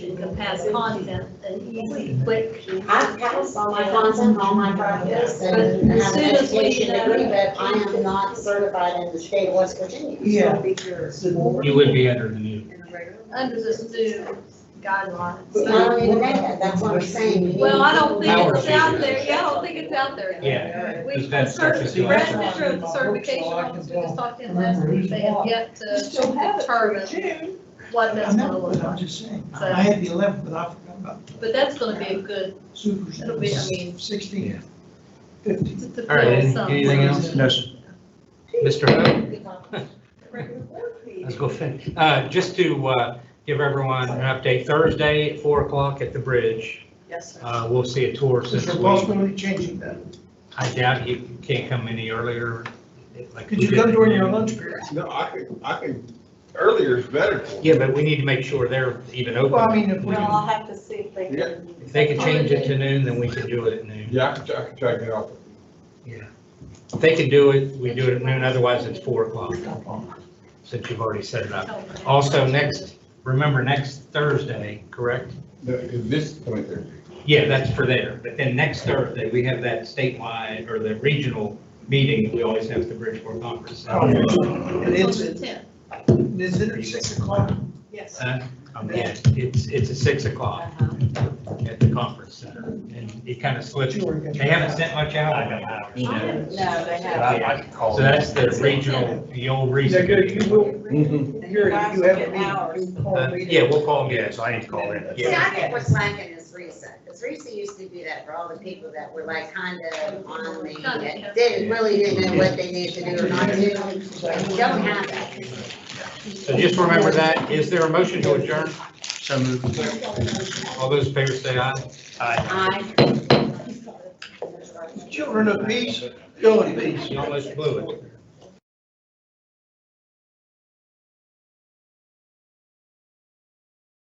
can pass content and easy, quick. I've passed all my content, all my practice, and I have an education degree, but I am not certified in the state of West Virginia. Yeah. Be yours. You would be under the new. Under this new guideline. I don't even know that, that's what I'm saying. You need Well, I don't think it's Power out there, yeah, I don't think it's out there. Yeah. We, Because that's such a the register of the certification office, we just talked in last week, they have yet to determine June. what I that's gonna know, look but I'm like. just saying, I had the eleventh, but I forgot about the But that's gonna be a good, super. It'll be, I mean- Sixteen, fifteen. to to All right, feel any- some. anything else? No, Mr. Hood? Let's go finish. Uh, just to, uh, give everyone an update, Thursday at four o'clock at the bridge, Yes, sir. uh, we'll see a tour Is since there we, possibility of changing that? I doubt you can't come any earlier. like Could we you come did. during your lunch period? No, I could, I could, earlier is better for me. Yeah, but we need to make sure they're even Well, I open. mean, if we, Well, I'll have to see if they can. If they could change it to noon, then we can do it at noon. Yeah, I could, I could check it out. If they can do it, we do it at noon, otherwise it's four o'clock, since you've already set it up. Also, next, remember, next Thursday, correct? The- This point there. Yeah, that's for there, but then next Thursday, we have that statewide or the regional meeting that we always have at the Bridgeport Conference. Center. Oh, and it's, On the 10th. is it at six o'clock? Yes. Uh, Yeah, it's, it's at six o'clock at the conference center, and it kind of slips. They haven't sent much out. you know. No, they But haven't. I- I can call. So that's the regional, the old Is that good? You region. will, you're, Guys you will have get a hours. meeting. You call a Uh, meeting. Yeah, we'll call them, yeah, so I need to call in. See, Yeah, I think what's lacking is RISA, because RISA used to do that for all the people that were like kind of on the, that didn't, really didn't know what they needed to do or not do. And you don't have that. so just remember that. Is there a motion to adjourn? So moved. All those in favor say aye. Aye. I, Um, Children of peace, go in peace. You almost blew it.